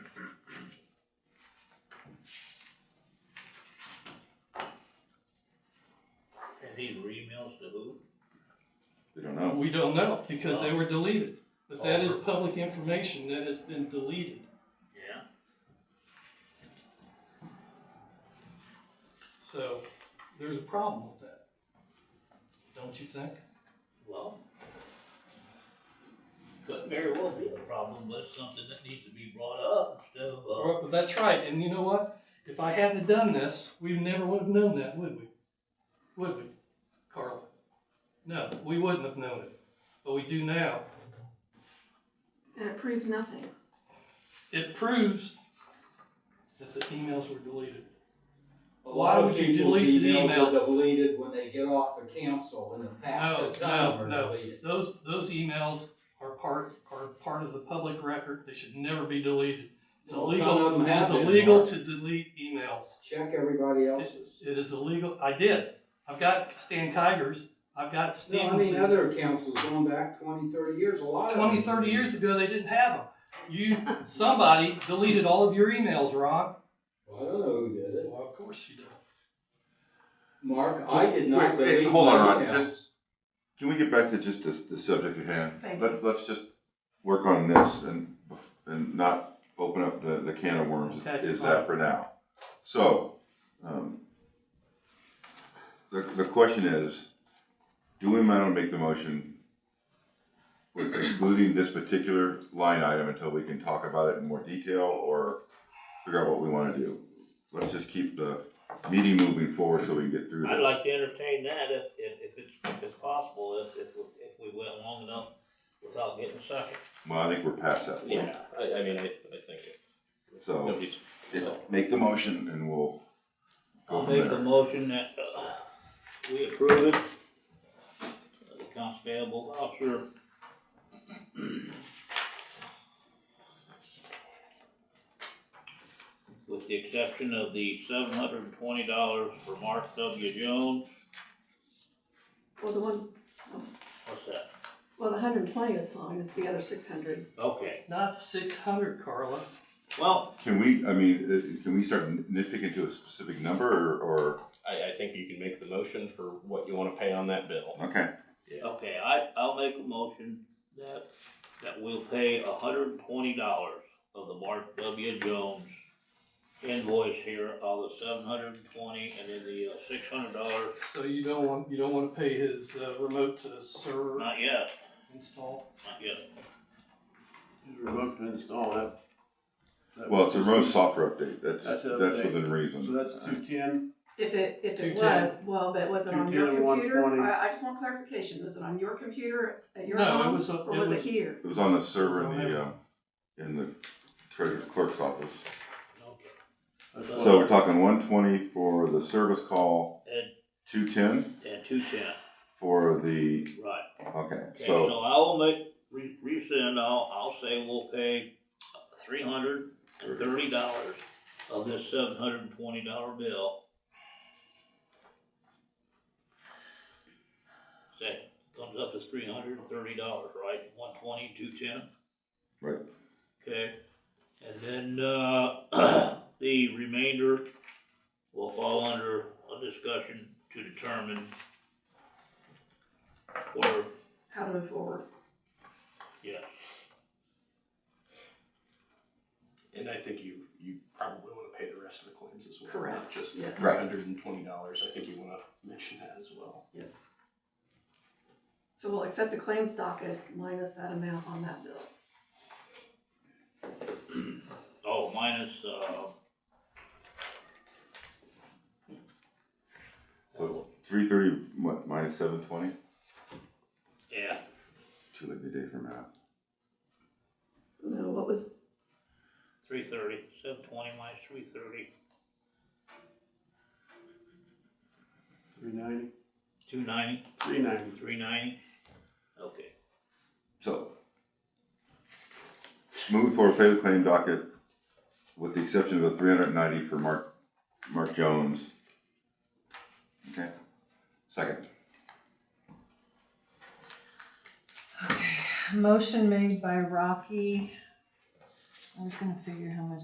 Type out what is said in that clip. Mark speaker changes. Speaker 1: these were emails to who?
Speaker 2: We don't know.
Speaker 3: Uh, We don't know, because they were deleted, but that is public information that has been deleted.
Speaker 1: Yeah,
Speaker 3: So there's a problem with that, don't you think?
Speaker 1: well. Could very well be a problem, but it's something that needs to be brought up instead of, uh,
Speaker 3: Or- That's right, and you know what? If I hadn't done this, we never would have known that, would we? Would we, Carl? No, we wouldn't have known it, but we do now.
Speaker 4: And it proves nothing.
Speaker 3: It proves that the emails were deleted.
Speaker 5: A
Speaker 3: Why
Speaker 5: lot of
Speaker 3: would you
Speaker 5: people's
Speaker 3: delete the
Speaker 5: emails
Speaker 3: email?
Speaker 5: are deleted when they get off the council in the past.
Speaker 3: No,
Speaker 5: six
Speaker 3: no,
Speaker 5: times
Speaker 3: no.
Speaker 5: are deleted.
Speaker 3: Those, those emails are part, are part of the public record. They should never be deleted. It's
Speaker 5: Well, some of
Speaker 3: illegal,
Speaker 5: them
Speaker 3: it is
Speaker 5: have been,
Speaker 3: illegal
Speaker 5: Mark.
Speaker 3: to delete emails.
Speaker 5: Check everybody else's.
Speaker 3: It is illegal. I did. I've got Stan Kiger's. I've got
Speaker 5: No, I mean,
Speaker 3: Stevenson's.
Speaker 5: other councils going back 20, 30 years, a lot of. them.
Speaker 3: 20, 30 years ago, they didn't have them. You, somebody deleted all of your emails, Ron.
Speaker 5: Well, I don't know who did it.
Speaker 3: Well, of course you did.
Speaker 5: Mark, I did not
Speaker 2: Wait, wait,
Speaker 5: delete
Speaker 2: hold on, Ron,
Speaker 5: my emails.
Speaker 2: Can we get back to just the, the subject at hand?
Speaker 4: Thank
Speaker 2: Let, let's just work on this and, and not open up the, the can of worms,
Speaker 3: Okay,
Speaker 2: is
Speaker 3: fine.
Speaker 2: that for now? So, um, the, the question is, do we mind to make the motion with excluding this particular line item until we can talk about it in more detail or figure out what we wanna do? Let's just keep the meeting moving forward so we can get through this.
Speaker 1: I'd like to entertain that if, if, if it's, if it's possible, if, if, if we went long enough without getting suckered.
Speaker 2: Well, I think we're past that point.
Speaker 6: Yeah, I, I mean, I, I think. it-
Speaker 2: So-
Speaker 6: nobody's-
Speaker 2: Just
Speaker 6: So-
Speaker 2: make the motion and we'll go
Speaker 1: I'll
Speaker 2: from
Speaker 1: make a
Speaker 2: there.
Speaker 1: motion that, uh, we approve it. Uh, The constable officer. With the exception of the seven hundred and twenty dollars for Mark W. Jones,
Speaker 4: Well, the one,
Speaker 1: what's that?
Speaker 4: well, the hundred and twenty was fine, it's the other six hundred.
Speaker 1: Okay,
Speaker 3: Not 600, Carla.
Speaker 1: well,
Speaker 2: Can we, I mean, uh, can we start nitpicking to a specific number or,
Speaker 6: I, I think you can make the motion for what you wanna pay on that bill.
Speaker 2: or, okay,
Speaker 1: okay, I, I'll make a motion that, that we'll pay hundred and twenty dollars of the Mark W. Jones invoice here, all the seven hundred and twenty, and then the uh, six hundred dollars,
Speaker 3: So you don't want, you don't want to pay his uh, remote to server
Speaker 1: not yet,
Speaker 3: install?
Speaker 1: not yet.
Speaker 7: You're about to install that. that-
Speaker 2: well, it's a road software update, that's,
Speaker 7: That's an
Speaker 2: that's
Speaker 7: update.
Speaker 2: within reason.
Speaker 7: So that's two ten,
Speaker 4: If it, if it
Speaker 3: 210.
Speaker 4: was, well, but was it on your
Speaker 7: 210,
Speaker 4: computer?
Speaker 7: 120.
Speaker 4: I, I just want clarification, was it on your computer at your
Speaker 3: No, it
Speaker 4: home?
Speaker 3: was, a- it
Speaker 4: Or was it
Speaker 3: was,
Speaker 4: here?
Speaker 2: It was on the server in
Speaker 3: It's on
Speaker 2: the, uh, in the treasurer's clerk's office.
Speaker 1: Okay.
Speaker 7: that's
Speaker 2: So
Speaker 7: what-
Speaker 2: we're talking one twenty for the service call,
Speaker 1: And-
Speaker 2: two ten
Speaker 1: And two ten,
Speaker 2: for the,
Speaker 1: right.
Speaker 2: okay,
Speaker 1: Okay, so
Speaker 2: so,
Speaker 1: I will make, re- resend, I'll, I'll say we'll pay three hundred and thirty dollars of this seven hundred and twenty dollar bill. That comes up to three hundred and thirty dollars, right? One twenty, two ten?
Speaker 2: Right.
Speaker 1: Okay, and then, uh, the remainder will fall under a discussion to determine where
Speaker 4: How to move forward?
Speaker 1: yeah,
Speaker 6: And I think you, you probably wanna pay the rest of the claims as well. Not
Speaker 4: Correct,
Speaker 6: just
Speaker 4: yes.
Speaker 2: Right.
Speaker 6: hundred and twenty dollars, I think you wanna mention that as well.
Speaker 4: Yes. So we'll accept the claims docket minus that amount on that bill.
Speaker 1: oh, minus, uh,
Speaker 2: so three thirty minus seven twenty,
Speaker 1: yeah,
Speaker 2: too late in the day for math.
Speaker 4: No, what was,
Speaker 1: three thirty, seven twenty minus three thirty,
Speaker 7: Three ninety,
Speaker 1: two ninety,
Speaker 7: three ninety.
Speaker 1: three ninety, okay.
Speaker 2: So, move forward, pay the claim docket, with the exception of the three hundred and ninety for Mark, Mark Jones. Okay, second,
Speaker 8: Motion made by Rocky. I was gonna figure how much